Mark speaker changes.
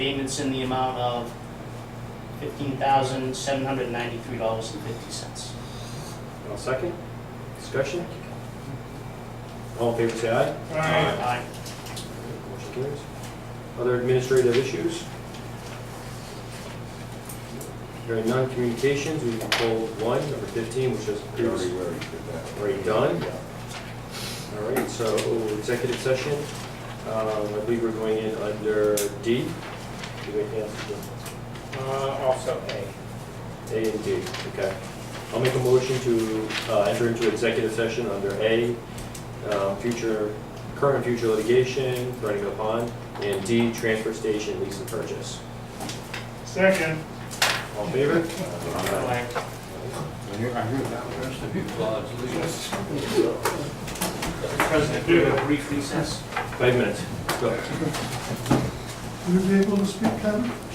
Speaker 1: Payments in the amount of fifteen thousand, seven hundred ninety-three dollars and fifty cents.
Speaker 2: I'll second. Discussion? All in favor, say aye.
Speaker 1: Aye.
Speaker 2: Motion carries. Other administrative issues? Hearing none, communications, we can pull one, number 15, which is
Speaker 3: We already
Speaker 2: previously
Speaker 3: were, we did that.
Speaker 2: already done.
Speaker 3: Yeah.
Speaker 2: All right, so executive session, um, I believe we're going in under D. Do we have to do?
Speaker 4: Uh, also A.
Speaker 2: A and D, okay. I'll make a motion to uh, enter into executive session under A, um, future, current and future litigation, running upon, and D, transfer station lease and purchase.
Speaker 4: Second.
Speaker 2: All in favor? Aye.
Speaker 1: Aye.
Speaker 3: I hear, I hear that rest of you applause, please.
Speaker 1: Mr. President, we have a brief recess.
Speaker 2: Five minutes, go.
Speaker 5: Will you be able to speak, Kevin?